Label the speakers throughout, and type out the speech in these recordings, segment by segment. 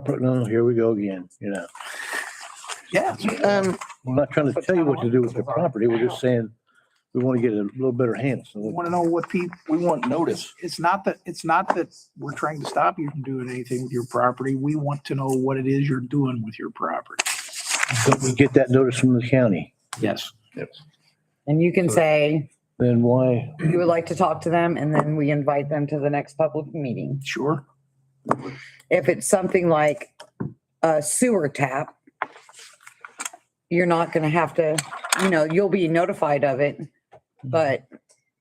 Speaker 1: corporate, no, here we go again, you know.
Speaker 2: Yeah.
Speaker 3: Um,
Speaker 1: We're not trying to tell you what to do with your property. We're just saying we want to get a little better handle.
Speaker 2: We
Speaker 1: So
Speaker 2: want to know what people, we want notice. It's not that, it's not that we're trying to stop you from doing anything with your property. We want to know what it is you're doing with your property.
Speaker 1: if we get that notice from the county,
Speaker 2: Yes.
Speaker 3: and you can say
Speaker 1: then why?
Speaker 3: you would like to talk to them and then we invite them to the next public meeting.
Speaker 2: Sure.
Speaker 3: If it's something like a sewer tap, you're not gonna have to, you know, you'll be notified of it,
Speaker 1: Mm-hmm.
Speaker 3: but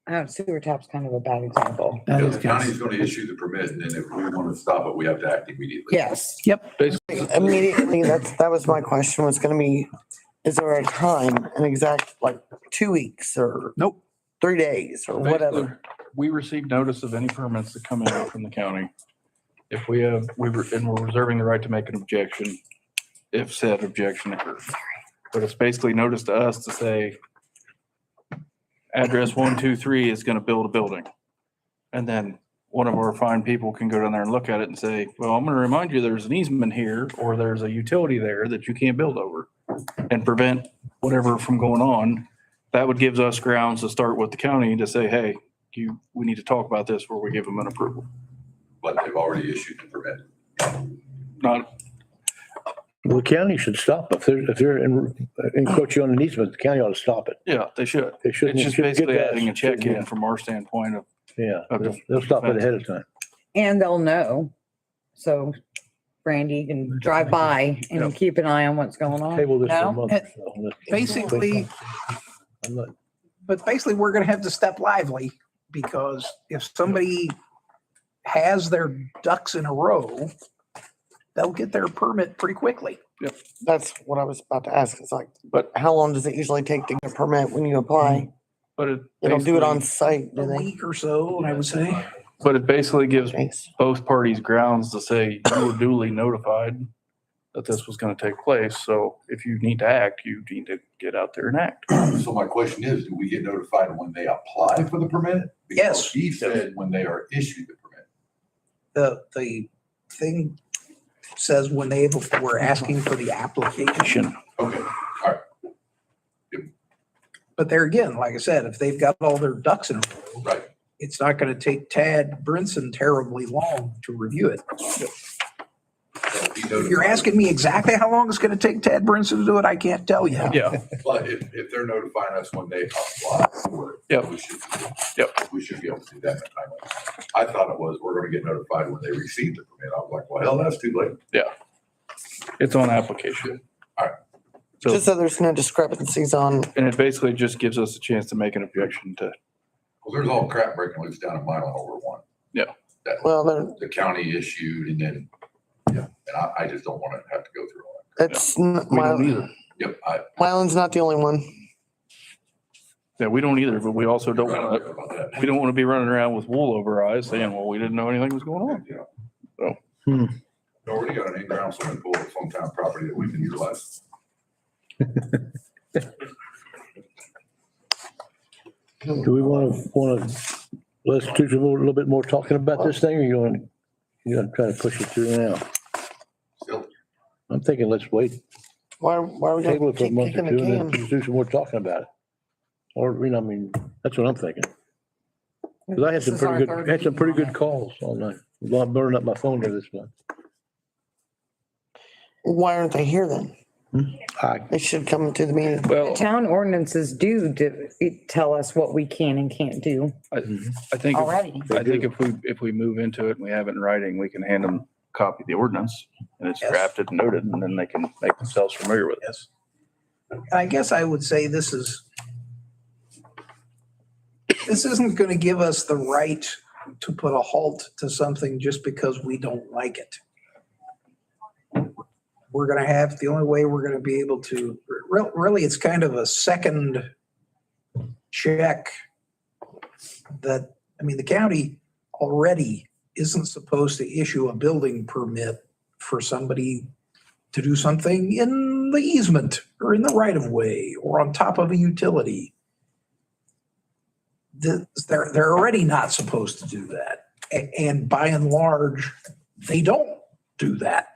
Speaker 3: uh, sewer tap's kind of a bad example.
Speaker 2: That
Speaker 4: Yeah,
Speaker 2: is
Speaker 4: The county's gonna issue the permit and then if we wanna stop it, we have to act immediately.
Speaker 3: Yes.
Speaker 5: Immediately, that's, that was my question, was gonna be, is there a time, an exact, like, two weeks or
Speaker 2: Nope.
Speaker 5: three days or whatever?
Speaker 6: We receive notice of any permits that come in from the county. If we have, we, were- and we're reserving the right to make an objection if said objection occurs. But it's basically notice to us to say, address one, two, three is gonna build a building. And then one of our fine people can go down there and look at it and say, well, I'm gonna remind you, there's an easement here, or there's a utility there that you can't build over. And prevent whatever from going on. That would gives us grounds to start with the county to say, hey, you, we need to talk about this where we give them an approval.
Speaker 4: But they've already issued the permit.
Speaker 6: Not,
Speaker 1: The county should stop. If they're, if they're en- encroaching on an easement, the county ought to stop it.
Speaker 6: yeah, they should.
Speaker 1: They shouldn't.
Speaker 6: It's just
Speaker 1: shouldn't get
Speaker 6: basically
Speaker 1: that.
Speaker 6: adding a check in from our standpoint of,
Speaker 1: Yeah, they'll,
Speaker 6: Okay.
Speaker 1: they'll stop it ahead of time.
Speaker 3: And they'll know. So Brandy can drive by and keep an eye on what's going on.
Speaker 1: Table this for a
Speaker 3: No?
Speaker 1: month or so. Let's-
Speaker 2: Basically,
Speaker 1: I'm not-
Speaker 2: but basically we're going to have to step lively because if somebody has their ducks in a row, they'll get their permit pretty quickly.
Speaker 5: That's what I was about to ask, it's like,
Speaker 6: But-
Speaker 5: how long does it usually take to get a permit when you apply?
Speaker 6: but it.
Speaker 5: They don't do it on
Speaker 6: Mm-hmm. basically-
Speaker 5: site,
Speaker 2: A
Speaker 5: do they?
Speaker 2: week or so, I would say.
Speaker 6: But it basically gives
Speaker 5: Thanks.
Speaker 6: both parties grounds to say you were duly notified that this was gonna take place. So if you need to act, you need to get out there and act.
Speaker 4: So my question is, do we get notified when they apply for the permit?
Speaker 2: Yes.
Speaker 4: Because He said when they are issued the permit.
Speaker 2: The, the thing says when they were asking for the application.
Speaker 4: Okay,
Speaker 2: But there again, like I said, if they've got all their ducks in, a row,
Speaker 4: right.
Speaker 2: it's not going to take Tad Brinson terribly long to review it.
Speaker 4: So he
Speaker 2: If you're
Speaker 4: notified.
Speaker 2: asking me exactly how long it's going to take Tad Brinson to do it, I can't tell you.
Speaker 6: Yeah,
Speaker 4: But if, if they're notifying us when they apply for it.
Speaker 6: Yep.
Speaker 4: we should-
Speaker 6: Yep.
Speaker 4: We should be able to do that in a timely manner. I thought it was, we're gonna get notified when they receive the permit. I was like, well, hell, that's too late.
Speaker 6: it's on application.
Speaker 4: Alright.
Speaker 6: So,
Speaker 5: Just so there's no discrepancies on,
Speaker 6: and it basically just gives us a chance to make an objection to,
Speaker 4: Well, there's all crap breaking loose down in Milan over one.
Speaker 5: well, there-
Speaker 4: the county issued and then, yeah, and I, I just don't want to have to go through all
Speaker 5: that's, n-
Speaker 6: we don't
Speaker 5: Mil-
Speaker 6: either.
Speaker 4: that. Yep, I.
Speaker 5: Milan's not the only one.
Speaker 6: Yeah, we don't either, but we also don't
Speaker 4: I
Speaker 6: wanna,
Speaker 4: care about that.
Speaker 6: we don't want to be running around with wool over our eyes saying, well, we didn't know anything was going on.
Speaker 4: Yeah.
Speaker 6: So.
Speaker 1: Hmm.
Speaker 4: We Already got an in-ground swimming pool at some town property that we can utilize.
Speaker 1: Do we want to, want to, let's do some more- a little bit more talking about this thing or you want, you're going to try to push it through now?
Speaker 4: Still,
Speaker 1: I'm thinking let's wait,
Speaker 5: Why, why are we
Speaker 1: table
Speaker 5: gonna
Speaker 1: it for a
Speaker 5: keep
Speaker 1: month or
Speaker 5: kicking
Speaker 1: two
Speaker 5: the
Speaker 1: and then
Speaker 5: can?
Speaker 1: just do some more talking about it. Or, you know, I mean, that's what I'm thinking. 'Cause I had some
Speaker 3: This is our
Speaker 1: pretty
Speaker 3: third
Speaker 1: good, had some pretty
Speaker 3: meeting on
Speaker 1: good
Speaker 3: it.
Speaker 1: calls all night. Well, I'm burning up my phone here this month.
Speaker 5: Why aren't they here then?
Speaker 1: I,
Speaker 5: They should come to the meeting.
Speaker 6: Well,
Speaker 3: Town ordinances do d- tell us what we can and can't do
Speaker 6: I, I think, if-
Speaker 3: already.
Speaker 6: I think if we, if we move into it and we have it in writing, we can hand them a copy of the ordinance and it's
Speaker 2: Yes.
Speaker 6: drafted and noted and then they can make themselves familiar with it.
Speaker 2: Yes. And I guess I would say this is, this isn't going to give us the right to put a halt to something just because we don't like it. We're going to have, the only way we're going to be able to, re- really, it's kind of a second check that, I mean, the county already isn't supposed to issue a building permit for somebody to do something in the easement or in the right of way or on top of a utility. The- They're, they're already not supposed to do that. A- And by and large, they don't do that.